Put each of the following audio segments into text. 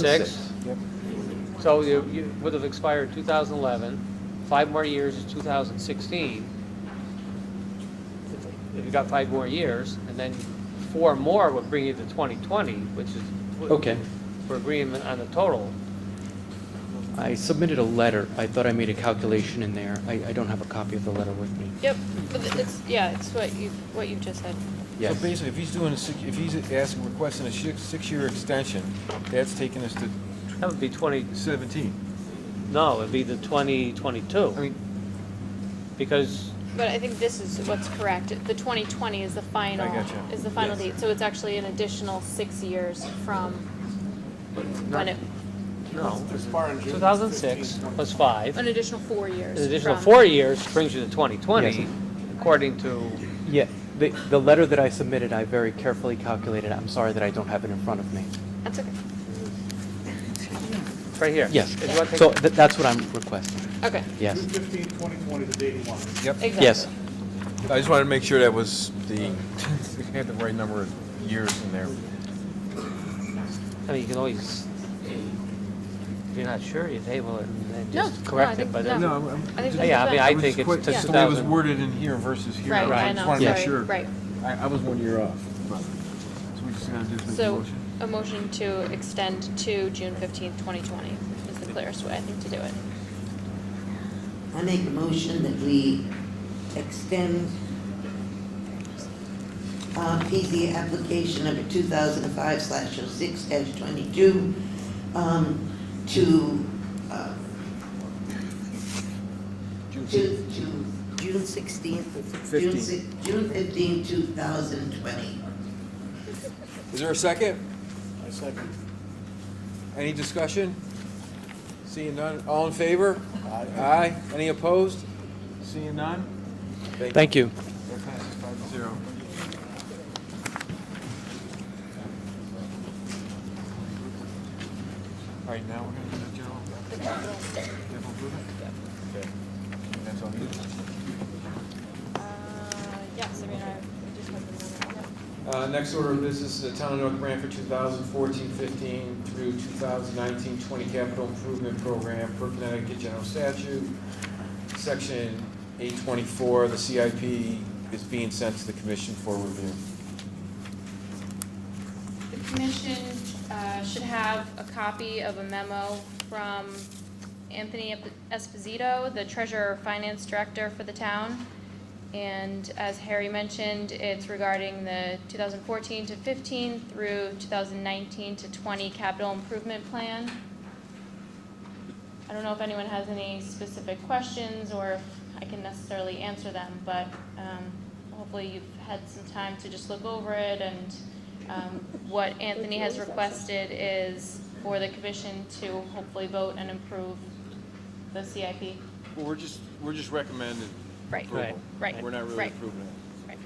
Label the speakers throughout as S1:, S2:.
S1: Six.
S2: Yep.
S1: So you, you would have expired 2011, five more years is 2016. If you got five more years, and then four more would bring you to 2020, which is.
S3: Okay.
S1: For agreement on the total.
S3: I submitted a letter. I thought I made a calculation in there. I, I don't have a copy of the letter with me.
S4: Yep, but th- it's, yeah, it's what you, what you just said.
S2: So
S3: Yes.
S2: basically, if he's doing a six, if he's asking, requesting a six, six-year extension, that's taking us to
S1: That would be 20,
S2: seventeen.
S1: no, it'd be the
S2: I
S1: 2022,
S2: mean,
S1: because
S4: But I think this is what's correct. The twenty twenty is the final,
S2: gotcha.
S4: is the final
S2: Yes.
S4: date, so it's actually an additional six years from when it,
S1: No,
S5: expiring June
S1: 2006
S5: 15th.
S1: plus five,
S4: an
S1: an
S4: additional four years.
S1: additional
S4: from-
S1: four years brings you to 2020,
S3: Yes.
S1: according to,
S3: Yeah, the, the letter that I submitted, I very carefully calculated. I'm sorry that I don't have it in front of me.
S4: That's okay.
S1: it's right here.
S3: Yes.
S1: If you want to
S3: So
S1: take-
S3: th- that's what I'm requesting.
S4: Okay,
S3: Yes.
S5: June 15, 2020, the date he wanted.
S2: Yep.
S4: exactly.
S3: Yes.
S2: I just wanted to make sure that was the, we had the right number of years in there.
S1: I mean, you can always, if you're not sure, you table it and then
S4: No,
S1: just
S4: no, I
S1: correct it,
S4: think-
S1: but.
S4: no.
S1: it's-
S2: I'm-
S4: I think
S2: just-
S4: that's
S1: Yeah, I mean,
S4: fine.
S1: I think it's
S2: Quick,
S1: to
S2: The way it was
S1: 2000.
S2: worded in here versus here.
S4: Right,
S1: Right.
S4: I
S2: just
S4: know,
S2: wanted to make
S4: sorry,
S2: sure.
S4: right.
S2: I, I was one year off. but- So we just gotta just make a
S4: So,
S2: motion.
S4: a motion to extend to June fifteenth, twenty twenty is the clearest way, I think, to do it.
S6: I make a motion that we extend uh, PZ application number 2005/06-22 um, to, uh, to, to June 16th, June
S2: Fifteenth.
S6: si- June 15th, 2020.
S2: Is there a second?
S5: I second.
S2: Any discussion? Seeing none, all in favor? Aye. Aye, any opposed? Seeing none?
S3: Thank you.
S2: That passes five to zero. All right, now we're gonna do the general. Capital improvement? Okay. That's all you.
S4: Uh, yes, I mean, I just
S2: Uh, next order of business is the town of North Branford 2014-15 through 2019-20 capital improvement program per Connecticut General Statute. Section 824, the CIP is being sent to the commission for review.
S4: The commission uh, should have a copy of a memo from Anthony Esposito, the treasurer, finance director for the town. And as Harry mentioned, it's regarding the 2014 to 15 through 2019 to 20 capital improvement plan. I don't know if anyone has any specific questions or if I can necessarily answer them, but um, hopefully you've had some time to just look over it and um, what Anthony has requested is for the commission to hopefully vote and approve the CIP.
S2: Well, we're just, we're just recommending
S4: Right,
S1: Right.
S4: right,
S2: We're not really
S4: right.
S2: approving it.
S4: right.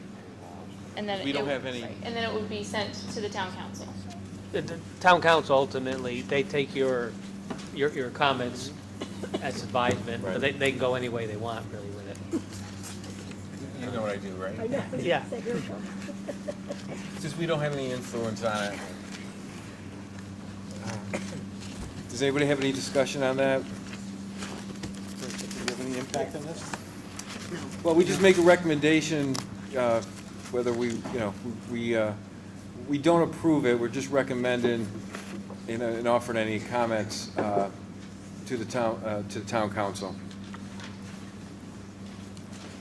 S4: And then.
S2: We
S4: it
S2: don't
S4: would-
S2: have any-
S4: right, And then it would be sent to the town council.
S1: The the town council ultimately, they take your, your, your comments as advisement, but
S2: Right.
S1: they, they can go any way they want really with
S2: You know what I do, right?
S1: it. Yeah.
S2: Since we don't have any influence on it. Does anybody have any discussion on that? Do you have any impact on this?
S6: No.
S2: Well, we just make a recommendation, uh, whether we, you know, we, uh, we don't approve it, we're just recommending and uh, and offering any comments uh, to the town, uh, to the town council.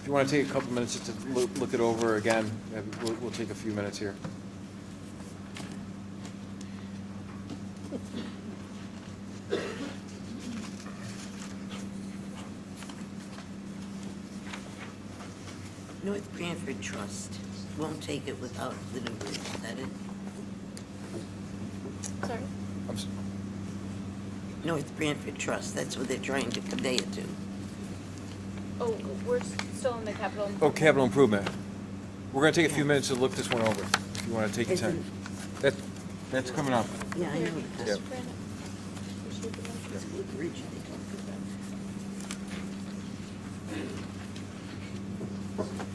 S2: If you want to take a couple minutes just to loo- look it over again, uh, we'll, we'll take a few minutes here.
S6: North Branford Trust won't take it without the new bridge, is that it?
S4: Sorry.
S2: I'm s-
S6: North Branford Trust, that's what they're trying to convey it to.
S4: Oh, we're still in the capital.
S2: Oh, capital improvement. We're going to take a few minutes to look this one over, if you want to take your time. That, that's coming up.
S6: Yeah, I know.
S2: Yeah.
S6: That's what bridge they talk about.